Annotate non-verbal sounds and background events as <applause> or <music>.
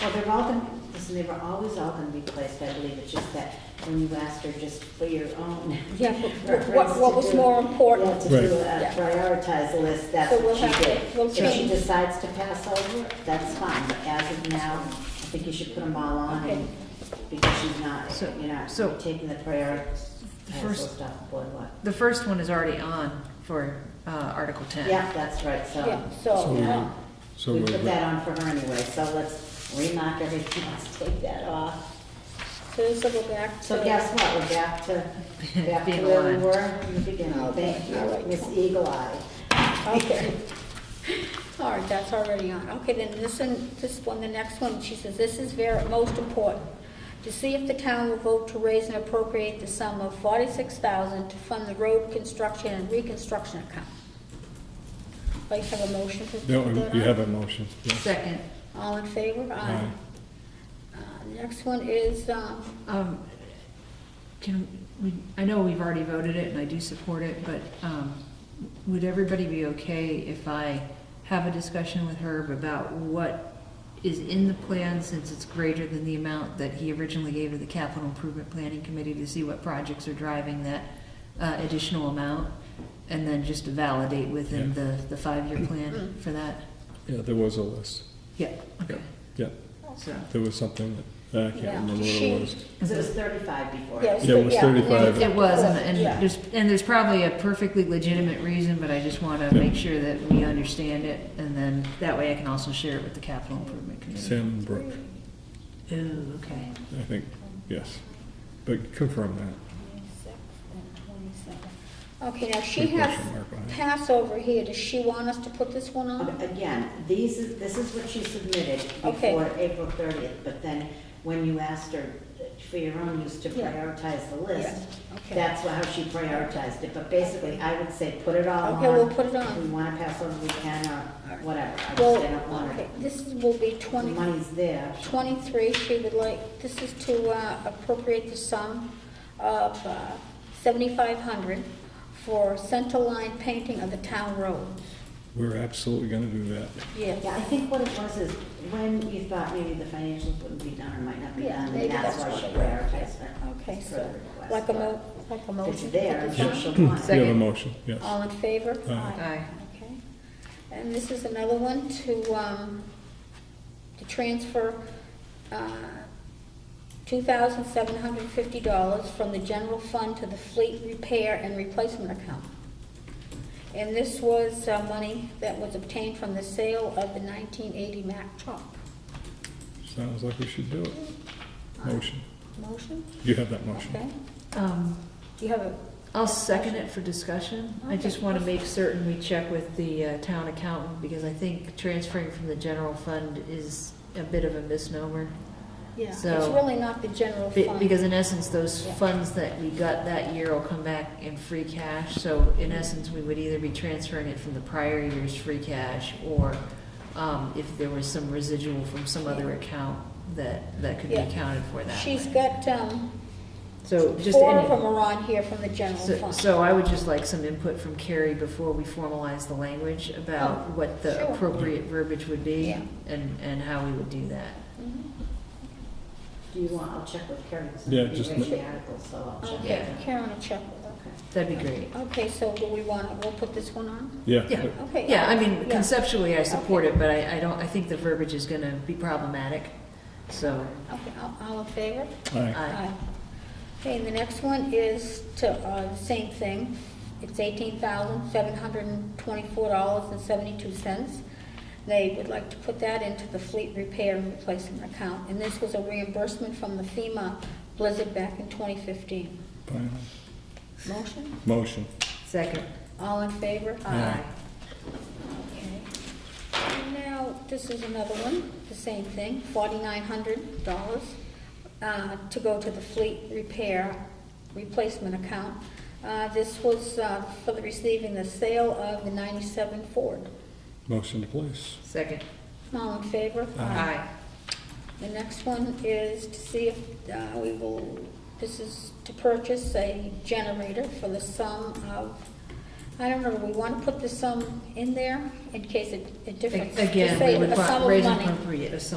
Well, they're all gonna, listen, they were always all gonna be placed, I believe, it's just that when you asked her just for your own. <laughs> Yeah, for- reference what- what to was do- more important. yeah, To do Right. a Yeah. prioritize list, that's So what we'll have she to- did. we'll If she change. decides to pass over, that's fine, but as of now, I think you should put them all on, Okay. and- because she's not, So- you're not so- taking the priority, The pass first- stuff, boy, what? The first one is already on for uh, Article 10. Yeah, that's right, so. Yeah, so, yeah. So We moved. put that on for her anyway, so let's remark everything, <laughs> let's take that off. so this will go back to. So guess what, we're back to, back to Being where we aligned. were in the beginning, Okay, thank all right. you, Miss Eagle Eye. Okay. All right, that's already on. Okay, then this one, this one, the next one, she says, this is very, most important. To see if the town will vote to raise and appropriate the sum of forty-six thousand to fund the road construction and reconstruction account. Do you have a motion for? No, that you on? have a motion. yes. Second, All in favor? Aye. Aye. Uh, next one is, um, um, can, we? I know we've already voted it, and I do support it, but um, would everybody be okay if I have a discussion with Herb about what is in the plan, since it's greater than the amount that he originally gave to the Capital Improvement Planning Committee, to see what projects are driving that uh, additional amount, and then just to validate within the, the five-year plan for that? Yeah, there was a list. Yeah, okay, Yeah, so. there was something that, I Yeah. can't remember what She- it was. Because it was thirty-five before. yes. Yeah, it was yeah, and then 35. It was, and- and Yeah. there's, and there's probably a perfectly legitimate reason, but I just want to Yeah. make sure that we understand it, and then that way I can also share it with the capital improvement committee. Sam Brook, Oh, okay. I think, yes. But confirm that. 26 and 27. Okay, now she Good has question mark behind it. Passover here, does she want us to put this one on? Okay, Again, these, is this is what she submitted Okay. before April thirtieth, but then when you asked her for your own use to Yeah. prioritize the list, Yeah, okay. that's wha- how she prioritized it, but basically, I would say, put it all on. Okay, we'll put it on. If we wanna pass over, we can, or whatever, I just Well, don't want okay, her, this is- will be the 20, money's there. 23, she would like, this is to uh, appropriate the sum of uh, 7,500 for center line painting of the town roads. We're absolutely gonna do that. Yes. Yeah, I think what it was is when you thought maybe the financials wouldn't be done or might not be Yeah, done, maybe and that's that's why she what it was, prioritized her. Okay, for so, the request. like a mo, like a If motion. It's to put there, this so on? she'll want it. You have a Second. motion, yes. All in favor? Aye. Aye. Okay. And this is another one to, um, to transfer, uh, two thousand seven hundred fifty dollars from the general fund to the fleet repair and replacement account. And this was, uh, money that was obtained from the sale of the nineteen eighty Mack truck. Sounds like we should do it. Motion. Motion? You have that motion. uh, Okay. Um, Do you have a, I'll second it for discussion. I just want to make certain we check with the uh, town accountant, because I think transferring from the general fund is a bit of a misnomer. yeah, it's So- really not the general Be- fund. Because in essence, those Yeah. funds that we got that year will come back in free cash, so in essence, we would either be transferring it from the prior year's free cash, or um, if there was some residual from some other account that, that could be Yeah. accounted for that She's way. got, um, So just, Four any- of them are on here from the general so- fund. so I would just like some input from Carrie before we formalize the language about Oh, what the sure. appropriate verbiage would be, Yeah. and, and how we would do that. Mhm. Do you want, I'll check with Karen, because Yeah, I'm just reading ma- the article, so I'll check. Okay, Yeah. Karen will check with her. Okay. That'd be great. Okay, so do we want, we'll put this one on? Yeah. Yeah. Okay. Yeah, I mean, Yeah. conceptually, I support it, but I, I don't, I think the verbiage is gonna be problematic, so, Okay, all- all in favor? All right, aye. Okay, and the next one is to, uh, the same thing. It's eighteen thousand, seven hundred and twenty-four dollars and seventy-two cents. They would like to put that into the fleet repair and replacement account. And this was a reimbursement from the FEMA blizzard back in twenty fifteen. final. Motion? Motion. Second, All in favor? aye. Okay. And Now, this is another one, the same thing, forty-nine hundred dollars, uh, to go to the fleet repair replacement account. Uh, this was, uh, for the receiving the sale of the ninety-seven Ford. Motion to place. Second, All in favor? aye. The next one is to see if uh, we will, this is to purchase a generator for the sum of I don't know, do we want to put the sum in there in case it, it differs? Just Again, say we would a sum pro- of raise money. appropriate, a sum